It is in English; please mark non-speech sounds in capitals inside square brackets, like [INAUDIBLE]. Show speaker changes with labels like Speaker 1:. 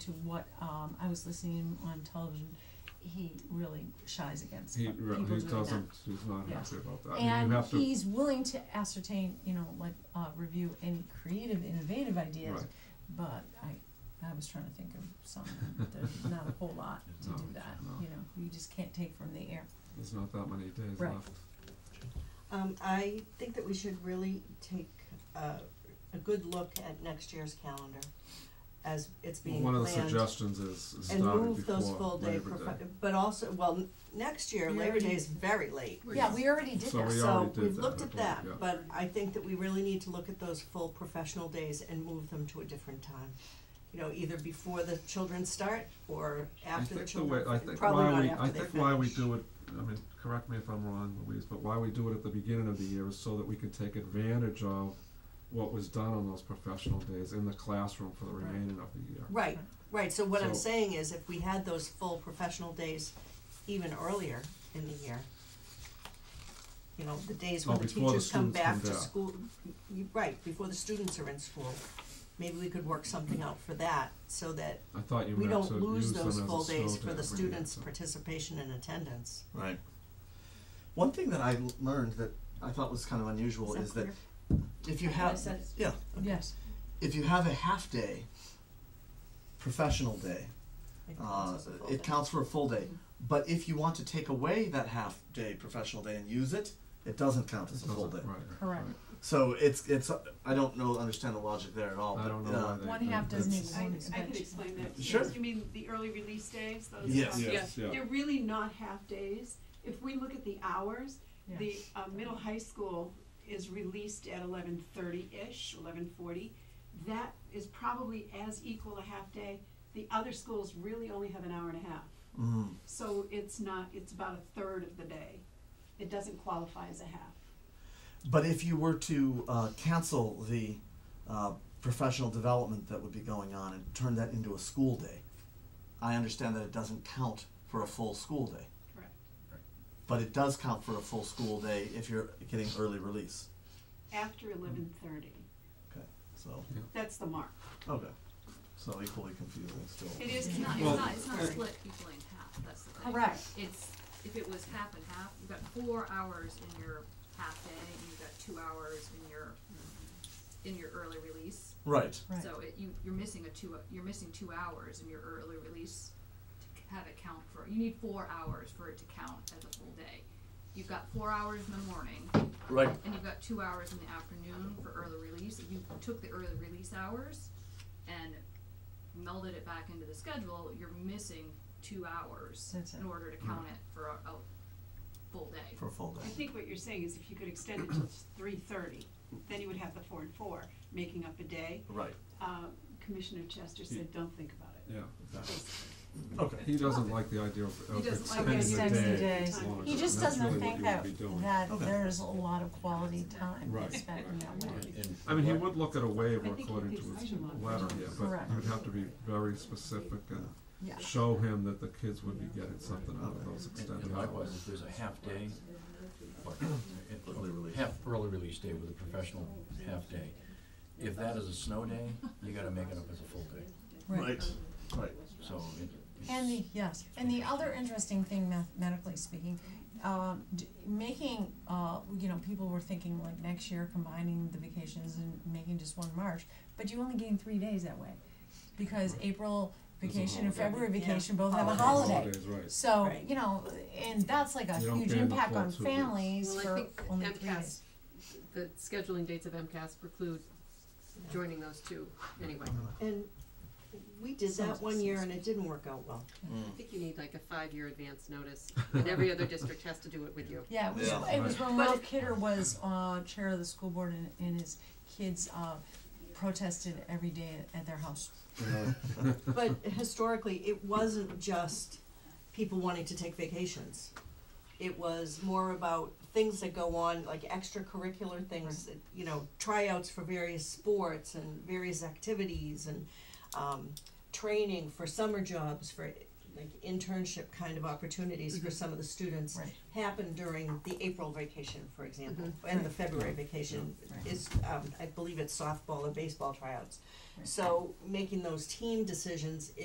Speaker 1: to what, um, I was listening on television, he really shies against
Speaker 2: He,
Speaker 1: people
Speaker 2: re-
Speaker 1: doing
Speaker 2: he
Speaker 1: that.
Speaker 2: doesn't, he's not
Speaker 1: Yeah.
Speaker 2: happy about that. I mean, you
Speaker 1: And
Speaker 2: have to,
Speaker 1: he's willing to ascertain, you know, like, uh, review any creative, innovative ideas,
Speaker 2: Right.
Speaker 1: but I, I was trying to think of some,
Speaker 2: [LAUGHS]
Speaker 1: there's not a whole lot to
Speaker 2: No,
Speaker 1: do that,
Speaker 2: no.
Speaker 1: you know, you just can't take from the air.
Speaker 2: there's not that many days
Speaker 1: Right.
Speaker 2: left.
Speaker 3: Um, I think that we should really take a, a good look at next year's calendar as it's being
Speaker 2: One
Speaker 3: planned.
Speaker 2: of the suggestions is is
Speaker 3: And
Speaker 2: starting
Speaker 3: move those
Speaker 2: before
Speaker 3: full day,
Speaker 2: Labor
Speaker 3: profi-
Speaker 2: Day.
Speaker 3: but also, well, n- next year,
Speaker 1: We
Speaker 3: Labor
Speaker 1: already-
Speaker 3: Day is very late.
Speaker 1: Yeah, we already did
Speaker 2: So
Speaker 1: that,
Speaker 2: we
Speaker 1: so,
Speaker 2: already
Speaker 3: So
Speaker 2: did
Speaker 3: we've
Speaker 2: that,
Speaker 3: looked at
Speaker 2: I
Speaker 3: that,
Speaker 2: believe,
Speaker 3: but I think that we really need to look at those full professional days and move them to a different time. You know, either before the children start or after the children,
Speaker 2: I think the way, I think
Speaker 3: probably
Speaker 2: why
Speaker 3: not
Speaker 2: we,
Speaker 3: after
Speaker 2: I
Speaker 3: they
Speaker 2: think why we
Speaker 3: finish.
Speaker 2: do it, I mean, correct me if I'm wrong, Louise, but why we do it at the beginning of the year is so that we can take advantage of what was done on those professional days in the classroom for the
Speaker 1: Right.
Speaker 2: remaining of the year.
Speaker 3: Right, right, so what I'm
Speaker 2: So-
Speaker 3: saying is if we had those full professional days even earlier in the year, you know, the days when
Speaker 2: Oh,
Speaker 3: the
Speaker 2: before the
Speaker 3: teachers come
Speaker 2: students
Speaker 3: back
Speaker 2: come
Speaker 3: to
Speaker 2: back.
Speaker 3: school, y- right, before the students are in school, maybe we could work something out for that, so that
Speaker 2: I thought you
Speaker 3: we
Speaker 2: meant
Speaker 3: don't
Speaker 2: to
Speaker 3: lose
Speaker 2: use them as
Speaker 3: those
Speaker 2: a
Speaker 3: full
Speaker 2: snow
Speaker 3: days
Speaker 2: day
Speaker 3: for the
Speaker 2: every year,
Speaker 3: students'
Speaker 2: so-
Speaker 3: participation and attendance.
Speaker 4: Right. One thing that I l- learned that I thought was kind of unusual is, that, if you
Speaker 1: I
Speaker 4: have
Speaker 1: said it.
Speaker 4: yeah,
Speaker 1: yes,
Speaker 4: if you have a half day professional day,
Speaker 3: It
Speaker 4: uh,
Speaker 3: counts as a
Speaker 4: it
Speaker 3: full day. Mm-hmm.
Speaker 4: counts for a full day. But if you want to take away that half day professional day and use it, it doesn't count as a full day.
Speaker 2: Doesn't- right,
Speaker 1: Correct.
Speaker 2: right.
Speaker 4: So it's it's uh, I don't know understand the logic there at all.
Speaker 2: I
Speaker 4: but,
Speaker 2: don't know
Speaker 4: uh,
Speaker 2: why they.
Speaker 1: One half doesn't
Speaker 2: that's-
Speaker 1: even-
Speaker 5: I,
Speaker 1: Long
Speaker 5: I
Speaker 1: extension.
Speaker 5: could explain that. to you.
Speaker 4: Sure.
Speaker 5: You mean the early release days, those?
Speaker 4: Yes.
Speaker 5: um,
Speaker 2: Yes, yeah.
Speaker 5: They're really not half-days. If we look at the hours,
Speaker 1: yeah.
Speaker 5: the, uh, middle high school is released at eleven thirty-ish, eleven forty. That is probably as equal a half-day. The other schools really only have an hour and a half.
Speaker 4: mm,
Speaker 5: So it's not, it's about a third of the day. It doesn't qualify as a half.
Speaker 4: But if you were to uh, cancel the uh, professional development that would be going on and turn that into a school day, I understand that it doesn't count for a full school day.
Speaker 5: Correct.
Speaker 4: But it does count for a full school day if you're getting early release.
Speaker 5: After eleven thirty.
Speaker 4: Okay, so,
Speaker 5: That's the mark.
Speaker 4: okay. So equally confusing still.
Speaker 5: It is
Speaker 6: It's not, it's
Speaker 2: Well,
Speaker 6: not, it's not
Speaker 2: uh,
Speaker 6: split equally in half, that's the thing.
Speaker 1: Correct.
Speaker 6: It's, if it was half and half, you've got four hours in your half day, and you've got two hours in your, in your early release.
Speaker 4: Right.
Speaker 1: Right.
Speaker 6: So it, you, you're missing a two, you're missing two hours in your early release to c- have it count for, you need four hours for it to count as a full day. You've got four hours in the morning,
Speaker 4: Right.
Speaker 6: and you've got two hours in the afternoon for early release. If you took the early release hours and melded it back into the schedule, you're missing two hours
Speaker 1: That's it.
Speaker 6: in order to count it for a, a full day.
Speaker 4: For a full
Speaker 5: I
Speaker 4: day.
Speaker 5: think what you're saying is if you could extend it to three thirty, then you would have the four and four, making up a day.
Speaker 4: Right.
Speaker 5: Uh, Commissioner Chester said, don't think about it.
Speaker 2: Yeah,
Speaker 4: Okay.
Speaker 2: he doesn't like the idea of
Speaker 6: He
Speaker 2: of
Speaker 6: doesn't like
Speaker 2: extending
Speaker 1: the idea
Speaker 2: the
Speaker 1: of
Speaker 2: day.
Speaker 1: extending
Speaker 5: the
Speaker 2: longer,
Speaker 1: He
Speaker 2: and
Speaker 1: just
Speaker 2: that's
Speaker 1: doesn't
Speaker 2: really
Speaker 1: think
Speaker 2: what
Speaker 1: that,
Speaker 2: you would be doing.
Speaker 1: that
Speaker 4: Okay.
Speaker 1: there's a lot of quality time
Speaker 2: Right.
Speaker 1: spent in that way.
Speaker 2: I mean, he would look at a waiver
Speaker 5: I think he
Speaker 2: according to
Speaker 5: thinks I
Speaker 2: his
Speaker 5: should look.
Speaker 2: letter, yeah, but
Speaker 1: Correct.
Speaker 2: you'd have to be very specific and
Speaker 1: Yeah.
Speaker 2: show him that the kids would be getting something out of those
Speaker 7: And-
Speaker 2: extended
Speaker 7: And likewise,
Speaker 2: hours.
Speaker 7: if there's a half day, or
Speaker 4: Early release.
Speaker 7: half early release day with a professional half day, if that is a snow day, you gotta make it up as a full day,
Speaker 4: Right. Right.
Speaker 7: so it, it's.
Speaker 1: And the, yes, and the other interesting thing mathematically speaking, um, d- making, uh, you know, people were thinking like next year combining the vacations and making just one March, but you only gain three days that way. Because April
Speaker 2: There's a
Speaker 1: vacation and
Speaker 2: holiday.
Speaker 1: February
Speaker 3: Yeah.
Speaker 1: vacation both have a
Speaker 3: Holidays.
Speaker 1: holiday.
Speaker 2: Holidays, right.
Speaker 1: So,
Speaker 3: Right.
Speaker 1: you know, and that's like a
Speaker 2: You don't
Speaker 1: huge
Speaker 2: gain the
Speaker 1: impact
Speaker 2: full
Speaker 1: on
Speaker 2: two weeks.
Speaker 1: families
Speaker 8: Well, I
Speaker 1: for
Speaker 8: think
Speaker 1: only three
Speaker 8: MCAS,
Speaker 1: days.
Speaker 8: the scheduling dates of MCAS preclude joining those two anyway.
Speaker 3: And we did that one year and it didn't work out
Speaker 2: [LAUGHS]
Speaker 3: well.
Speaker 8: I think you need like a five-year advance notice, and every other district has to do it with you.
Speaker 1: Yeah, it was,
Speaker 4: Yeah.
Speaker 1: it was when
Speaker 8: But
Speaker 1: Will
Speaker 8: it-
Speaker 1: Kidder was, uh, chair of the school board and, and his kids, uh, protested every day at their house.
Speaker 3: But historically, it wasn't just people wanting to take vacations. It was more about things that go on, like extracurricular things, that, you know, tryouts for various sports and various activities and um, training for summer jobs, for like internship kind of opportunities for some of the students
Speaker 1: Mm-hmm. Right. Mm-hmm.
Speaker 3: happen during the April vacation, for example, and the February vacation
Speaker 1: Right.
Speaker 3: is, um, I believe it's softball and baseball tryouts.
Speaker 1: Right.
Speaker 3: So making those team decisions